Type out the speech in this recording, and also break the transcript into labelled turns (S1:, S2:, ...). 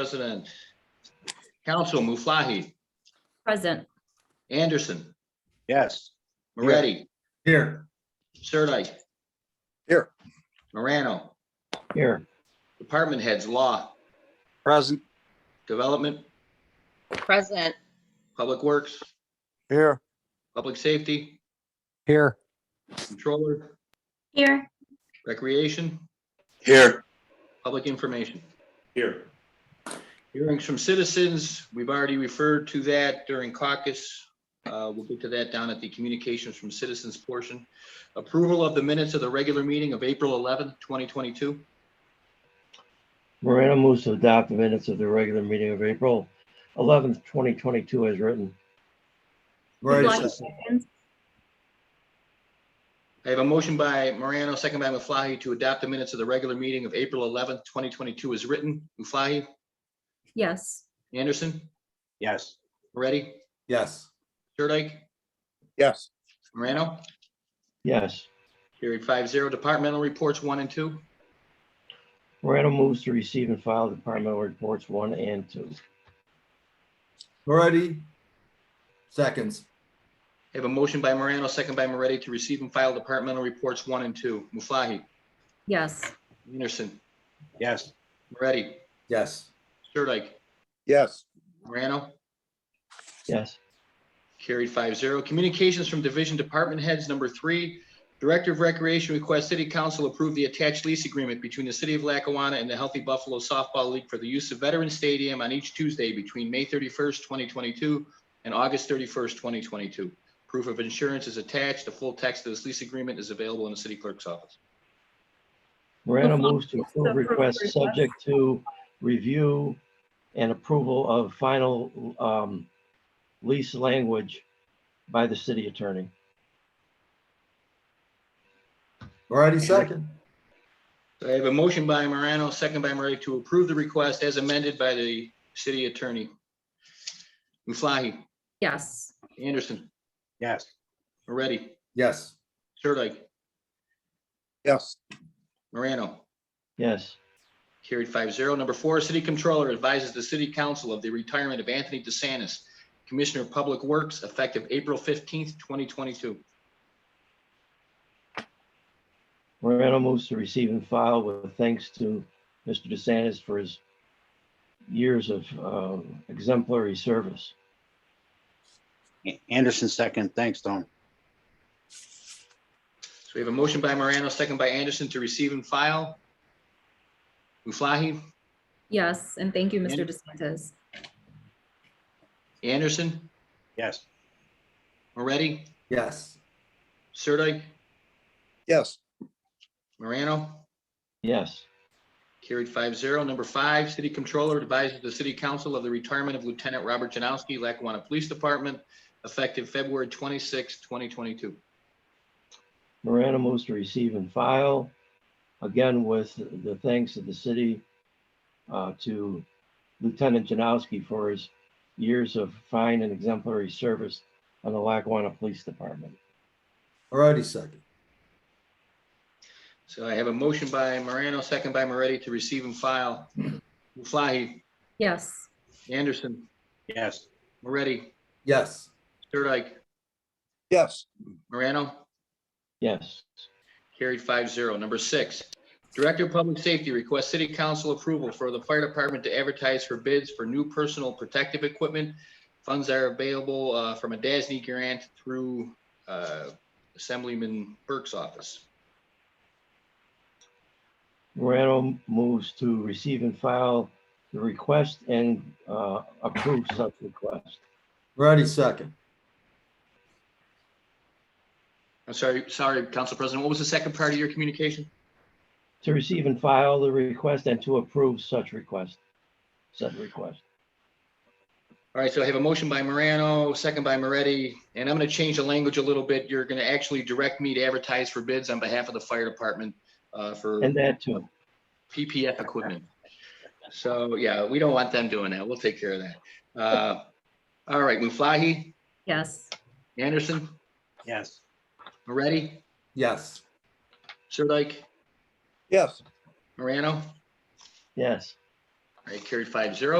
S1: President. Council, Muflahi,
S2: Present.
S1: Anderson,
S3: Yes.
S1: Moretti,
S4: Here.
S1: Sirdike.
S3: Here.
S1: Morano,
S4: Here.
S1: Department Heads, Law,
S3: Present.
S1: Development,
S2: Present.
S1: Public Works,
S3: Here.
S1: Public Safety,
S3: Here.
S1: Controller,
S2: Here.
S1: Recreation,
S3: Here.
S1: Public Information.
S4: Here.
S1: Hearings from citizens, we've already referred to that during caucus. Uh, We'll get to that down at the communications from citizens portion. Approval of the minutes of the regular meeting of April 11th, 2022.
S5: Morano moves to adopt the minutes of the regular meeting of April eleventh, twenty twenty-two as written.
S4: Moretti,
S1: I have a motion by Morano, second by Muflahi to adopt the minutes of the regular meeting of April 11th, 2022 as written. Muflahi,
S2: Yes.
S1: Anderson,
S3: Yes.
S1: Moretti,
S4: yes.
S1: Sirdike,
S3: Yes.
S1: Morano,
S5: Yes.
S1: carried five zero. Departmental reports one and two.
S5: Morano moves to receive and file departmental reports one and two.
S4: Moretti, seconds.
S1: I have a motion by Morano, second by Moretti to receive and file departmental reports one and two. Muflahi,
S2: Yes.
S1: Anderson,
S3: Yes.
S1: Moretti,
S4: Yes.
S1: Sirdike,
S3: Yes.
S1: Morano,
S5: Yes.
S1: carried five zero. Communications from division department heads, number three. Director of Recreation requests city council approve the attached lease agreement between the city of Lackawanna and the Healthy Buffalo Softball League for the use of Veteran Stadium on each Tuesday between May thirty-first, twenty twenty-two and August thirty-first, twenty twenty-two. Proof of insurance is attached. The full text of this lease agreement is available in the city clerk's office.
S5: Morano
S2: Approve-
S5: moves to approve
S2: approve
S5: requests
S2: request.
S5: subject to review and approval of final um, lease language by the city attorney.
S4: Moretti, second.
S1: So I have a motion by Morano, second by Moretti to approve the request as amended by the city attorney. Muflahi,
S2: Yes.
S1: Anderson,
S3: Yes.
S1: Moretti,
S4: Yes.
S1: Sirdike,
S3: Yes.
S1: Morano,
S5: Yes.
S1: carried 5-0. Number four, city controller advises the city council of the retirement of Anthony DeSantis, Commissioner of Public Works, effective April fifteenth, twenty twenty-two.
S5: Morano moves to receive and file with thanks to Mr. DeSantis for his years of uh, exemplary service.
S3: Anderson second. Thanks, Tom.
S1: So we have a motion by Morano, second by Anderson to receive and file. Muflahi,
S2: Yes. And thank you, Mr.
S1: And-
S2: DeSantis.
S1: Anderson,
S3: Yes.
S1: Moretti,
S4: Yes.
S1: Sirdike,
S3: Yes.
S1: Morano,
S5: Yes.
S1: Carried 5-0. Number five, city controller advises the city council of the retirement of Lieutenant Robert Janowski, Lackawanna Police Department, effective February 26, twenty twenty-two.
S5: Morano moves to receive and file, again with the thanks of the city uh, to Lieutenant Janowski for his years of fine and exemplary service on the Lackawanna Police Department.
S4: Moretti, second.
S1: So I have a motion by Morano, second by Moretti to receive and file. Muflahi,
S2: Yes.
S1: Anderson,
S3: Yes.
S1: Moretti,
S4: Yes.
S1: Sirdike,
S3: Yes.
S1: Morano,
S5: Yes.
S1: Carried 5-0. Number six, Director of Public Safety requests city council approval for the fire department to advertise for bids for new personal protective equipment. Funds are available uh, from a DASNY grant through uh, Assemblyman Burke's office.
S5: Morano moves to receive and file the request and uh, approve such request.
S4: Moretti, second.
S1: I'm sorry, sorry, Council President, what was the second part of your communication?
S5: To receive and file the request and to approve such request, such request.
S1: All right, so I have a motion by Morano, second by Moretti, and I'm going to change the language a little bit. You're going to actually direct me to advertise for bids on behalf of the fire department uh, for.
S5: And that too.
S1: PPF equipment. So, yeah, we don't want them doing that. We'll take care of that. Uh, All right, Muflahi,
S2: Yes.
S1: Anderson,
S3: Yes.
S1: Moretti,
S4: Yes.
S1: Sirdike,
S3: Yes.
S1: Morano,
S5: Yes.
S1: All right, carried five zero.